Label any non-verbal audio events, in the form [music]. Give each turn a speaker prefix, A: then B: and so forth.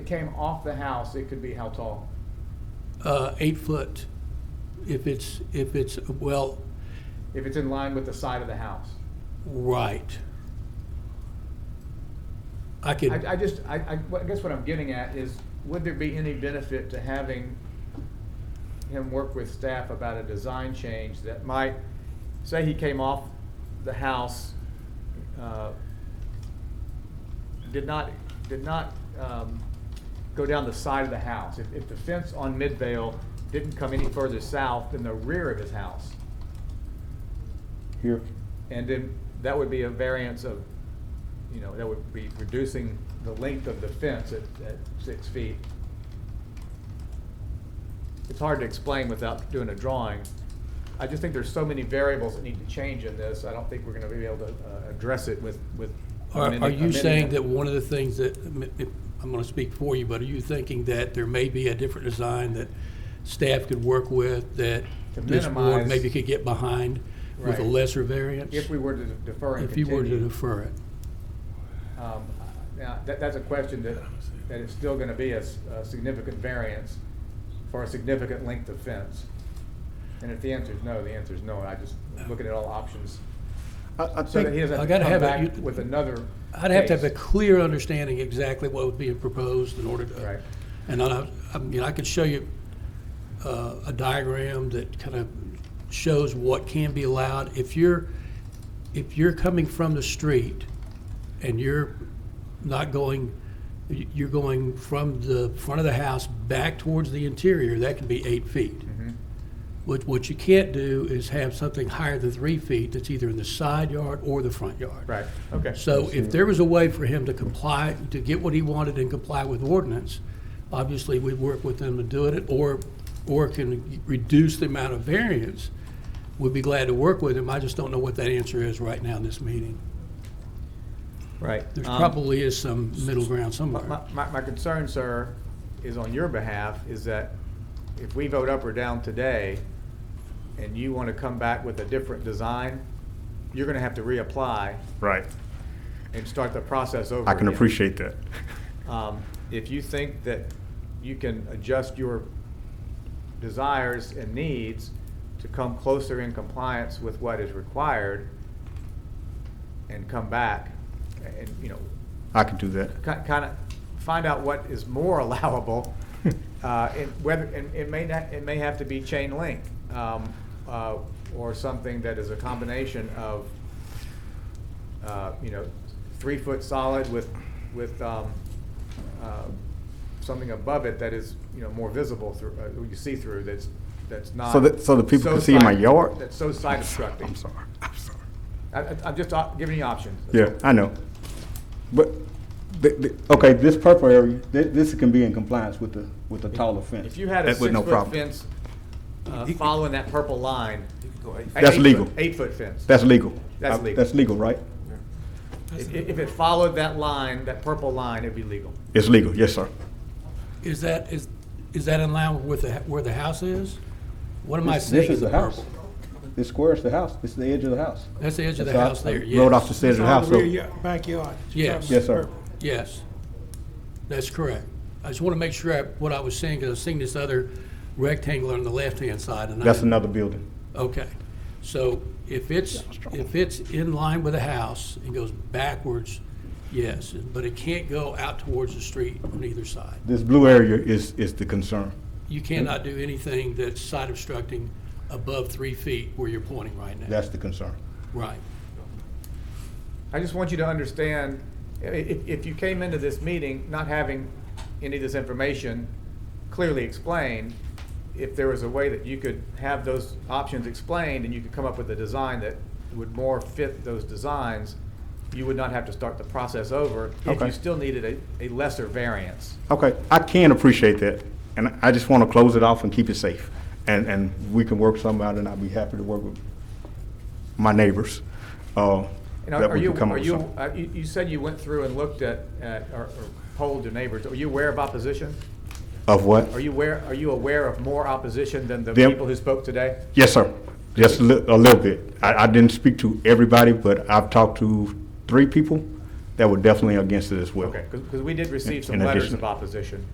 A: came off the house, it could be how tall?
B: Uh, eight foot, if it's, if it's, well,
A: If it's in line with the side of the house?
B: right. I
A: I, I
B: could,
A: just, I, I, what- I guess what I'm getting at is, would there be any benefit to having him work with staff about a design change that might, say he came off the house, uh, did not, did not, um, go down the side of the house. If, if the fence on Midvale didn't come any further south than the rear of his house,
C: Here,
A: and then that would be a variance of, you know, that would be reducing the length of the fence at, at six feet. It's hard to explain without doing a drawing. I just think there's so many variables that need to change in this, I don't think we're gonna be able to, uh, address it with, with.
B: are,
A: amending-
B: are you
A: amending
B: saying
A: it.
B: that one of the things that, if- I'm gonna speak for you, but are you thinking that there may be a different design that staff could work with, that
A: To
B: this board
A: minimize-
B: maybe could get behind with a
A: Right.
B: lesser variance?
A: If we were to defer and
B: If you were to
A: continue,
B: defer it.
A: um, now, that, that's a question that, that is still gonna be a, s- a significant variance for a significant length of fence. And if the answer is no, the answer is no, I just, looking at all options.
C: I, I
A: So that he
C: think,
A: doesn't
B: I
A: have to
B: gotta
A: come
B: have a-
A: back
B: you-
A: with another.
B: I'd have to have a
A: case.
B: clear understanding exactly what would be proposed in order
A: Right.
B: to, and I, I mean, I could show you uh, a diagram that kind of shows what can be allowed. If you're, if you're coming from the street and you're not going, you- you're going from the front of the house back towards the interior, that can be eight feet.
A: Mm-hmm.
B: What, what you can't do is have something higher than three feet that's either in the side yard or the front yard.
A: Right, okay.
B: So if there was a way for him to comply, to get what he wanted and comply with ordinance, obviously we'd work with him to do it, or, or can reduce the amount of variance, we'd be glad to work with him. I just don't know what that answer is right now in this meeting.
A: Right.
B: There's
A: Um,
B: probably is some middle ground
A: My,
B: somewhere.
A: my- my concern, sir, is on your behalf, is that if we vote up or down today, and you want to come back with a different design, you're going to have to reapply
C: right,
A: and start the process over.
C: I can
A: again.
C: appreciate that.
A: Um, If you think that you can adjust your desires and needs to come closer in compliance with what is required and come back and, you know,
C: I can do that.
A: kind of find out what is more [laughs] allowable, uh, and whether, and it may not, it may have to be chain link, um, uh, or something that is a combination of, uh, you know, three foot solid with, with, um, uh, something above it that is, you know, more visible through, uh, you see through, that's, that's not.
C: So that, so the people can see in my
A: uh, side-
C: yard?
A: That's so side obstructing.
C: I'm sorry, I'm sorry.
A: I, I- I'm just uh, giving you options.
C: Yeah, I know. But, the, the, okay, this purple area, thi- this can be in compliance with the, with the taller fence.
A: If you had a
C: That with no
A: six-foot
C: problem.
A: fence uh, following that purple line.
C: That's
A: eight-foot-
C: legal.
A: Eight-foot fence.
C: That's legal.
A: That's
C: I-
A: legal.
C: That's legal, right?
A: If if it followed that line, that purple line, it'd be legal.
C: It's legal, yes, sir.
B: Is that, is, is that in line with the, where the house is? What am I
C: This
B: seeing?
C: this is the house.
B: purple?
C: This square is the house. This is the edge of the house.
B: That's the edge of the
C: So I-
B: house there,
C: I Rode off the
B: yes,
C: stairs of the house,
D: It's on the
C: so,
D: rear ya- backyard.
B: Yes.
C: yes, sir.
B: yes. That's correct. I just want to make sure I- what I was seeing, because I was seeing this other rectangular on the left-hand side. and I
C: That's
B: didn't-
C: another building.
B: Okay, so if it's, if it's in line with the house and goes backwards, yes, but it can't go out towards the street on either side.
C: This blue area is, is the concern.
B: You cannot do anything that's side obstructing above three feet where you're pointing right now.
C: That's the concern.
B: Right.
A: I just want you to understand, i- if, if you came into this meeting not having any of this information clearly explained, if there was a way that you could have those options explained and you could come up with a design that would more fit those designs, you would not have to start the process over if
C: Okay.
A: you still needed a, a lesser variance.
C: Okay, I can appreciate that, and I just want to close it off and keep it safe. And, and we can work something out, and I'd be happy to work with my neighbors. uh,
A: And are
C: that
A: are
C: we
A: you,
C: can come up
A: are
C: with
A: you,
C: something.
A: uh, you you said you went through and looked at, at- or or polled your neighbors. Are you aware of opposition?
C: Of what?
A: uh, Are you aware, are you aware of more opposition than the
C: Them-
A: people who spoke today?
C: Yes, sir. Just a li- a little bit. I, I didn't speak to everybody, but I've talked to three people
A: that were definitely against it as well.
C: Okay, because we did receive some
A: In
C: letters
A: addition-
C: of opposition.